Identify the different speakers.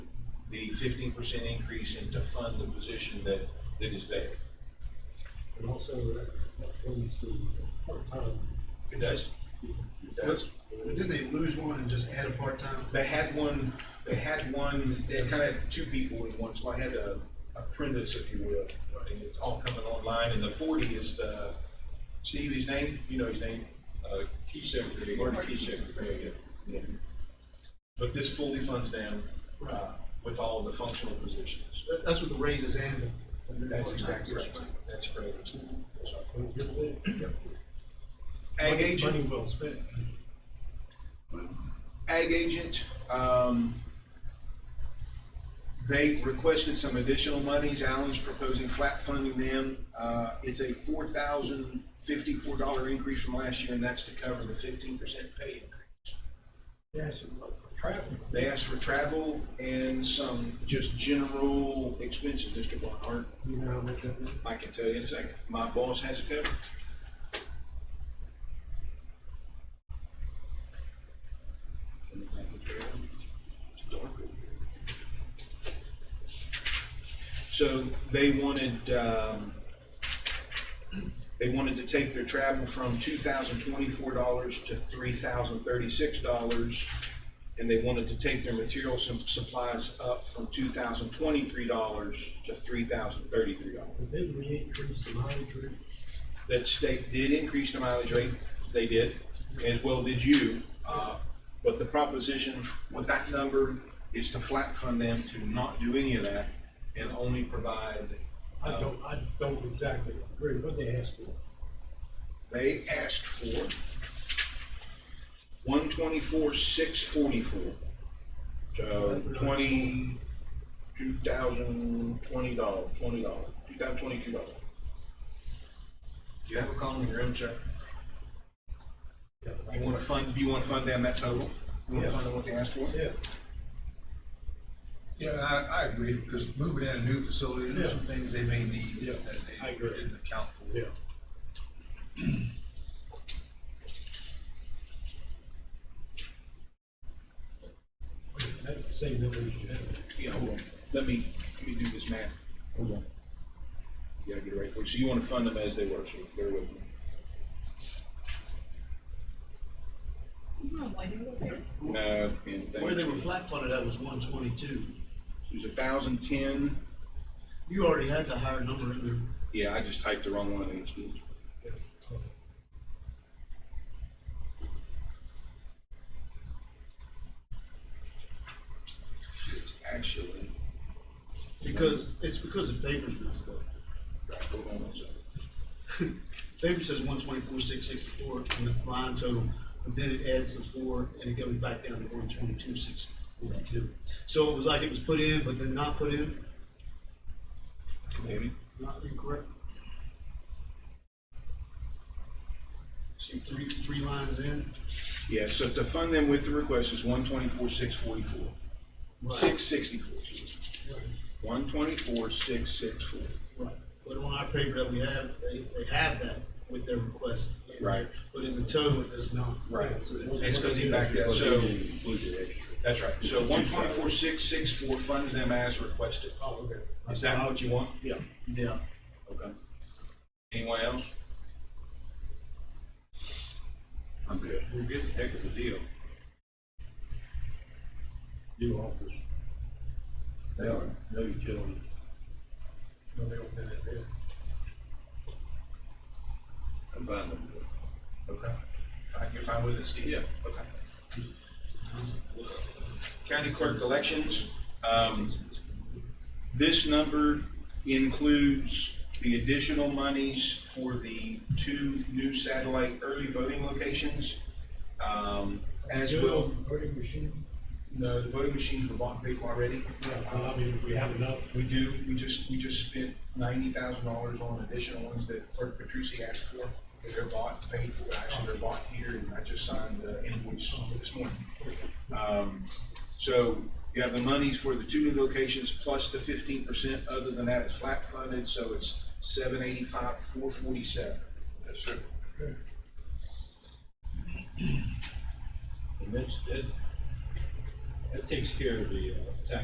Speaker 1: the fifteen percent increase and to fund the position that, that is there.
Speaker 2: And also that, that funds the part-time.
Speaker 1: It does. It does.
Speaker 3: Didn't they lose one and just add a part-time?
Speaker 1: They had one, they had one, they kind of had two people in one, so I had a apprentice, if you will, and it's all coming online, and the forty is the, Steve, his name, you know his name, uh, key secretary, Gordon Key Secretary, yeah. yeah. But this fully funds them, uh, with all the functional positions.
Speaker 3: That, that's what the raises and. the- the
Speaker 1: That's exactly
Speaker 3: part-time.
Speaker 1: right, that's correct.
Speaker 2: Don't give it in.
Speaker 1: Ag
Speaker 2: Money-
Speaker 1: agent.
Speaker 2: Money well spent.
Speaker 1: ag agent, um, they requested some additional monies. Alan's proposing flat funding them. Uh, it's a four thousand fifty-four dollar increase from last year, and that's to cover the fifteen percent pay increase.
Speaker 2: Yes, and like traffic.
Speaker 1: They asked for travel and some just general expenses, Mr. Blockhart.
Speaker 2: You know how much that is?
Speaker 1: I can tell you in a second. My boss has it covered. It's dark over here. So they wanted, um, they wanted to take their travel from two thousand twenty-four dollars to three thousand thirty-six dollars. And they wanted to take their materials and supplies up from two thousand twenty-three dollars to three thousand thirty-three dollars
Speaker 2: But then we increase the mileage rate.
Speaker 1: that state did increase the mileage rate, they did, as well did you. Uh, But the proposition with that number is to flat fund them to not do any of that and only provide.
Speaker 3: Oh.
Speaker 2: I don't, I don't exactly agree what they asked for.
Speaker 1: They asked for one twenty-four, six forty-four. So twenty, two thousand twenty dollars, twenty dollars, two thousand twenty-two dollars. Do you have a column in your own check?
Speaker 2: Yeah,
Speaker 1: You
Speaker 2: like-
Speaker 1: want to fund, do you want to fund them that total? You want
Speaker 2: Yeah.
Speaker 1: to fund them what they asked for?
Speaker 2: Yeah,
Speaker 4: Yeah, I, I agree, because moving in a new facility, there's some things they may need
Speaker 2: Yeah,
Speaker 4: that
Speaker 2: I
Speaker 4: they
Speaker 2: agree.
Speaker 4: didn't account for.
Speaker 2: yeah. That's the same number you had.
Speaker 1: Yeah, hold on. Let me, let me do this math. Hold on. Yeah, get it right for you. So you want to fund them as they were, so bear with me. No, and thank
Speaker 3: Where they
Speaker 1: you.
Speaker 3: were flat funded, that was one twenty-two.
Speaker 1: There's a thousand ten.
Speaker 3: You already had the higher number in there.
Speaker 1: Yeah, I just typed the wrong one in, excuse me. It's actually,
Speaker 3: Because, it's because the paper's messed up.
Speaker 1: right, hold on one second.
Speaker 3: Paper says one twenty-four, six sixty-four in the line total, but then it adds the four and it goes back down to one twenty-two, six forty-two. So it was like it was put in, but then not put in,
Speaker 1: Maybe.
Speaker 3: not incorrect. See, three, three lines in.
Speaker 1: Yeah, so to fund them with the request is one twenty-four, six forty-four.
Speaker 3: Right.
Speaker 1: Six sixty-four, excuse me. One twenty-four, six six four.
Speaker 3: Right, but on our paper that we have, they, they have that with their request. in there,
Speaker 1: Right.
Speaker 3: But in the total, it does not.
Speaker 1: It's because he backed out, so. That's right, so one twenty-four, six six four funds them as requested.
Speaker 2: Oh, okay.
Speaker 1: Is that what you want?
Speaker 2: Yeah.
Speaker 3: Yeah,
Speaker 1: Okay. Anyone else? I'm good. We're good, heck of a deal.
Speaker 2: New office.
Speaker 1: They are, no utilities.
Speaker 2: No, they don't have that there.
Speaker 1: Combine them. Okay. All right, You're fine with it, Steve? Yeah. Okay. County clerk elections, um, this number includes the additional monies for the two new satellite early voting locations. Um, as well,
Speaker 2: Voting machine.
Speaker 1: no, the voting machines were bought people already.
Speaker 2: Yeah, I mean, we have enough.
Speaker 1: We do, we just, we just spent ninety thousand dollars on additional ones that Clerk Patrici asked for, that they're bought, paid for, actually they're bought here, and I just signed the invoice this morning. Um, so you have the monies for the two new locations plus the fifteen percent, other than that it's flat funded, so it's seven eighty-five, four forty-seven. Yes, sir.
Speaker 5: And that's, that, that takes care of the, uh,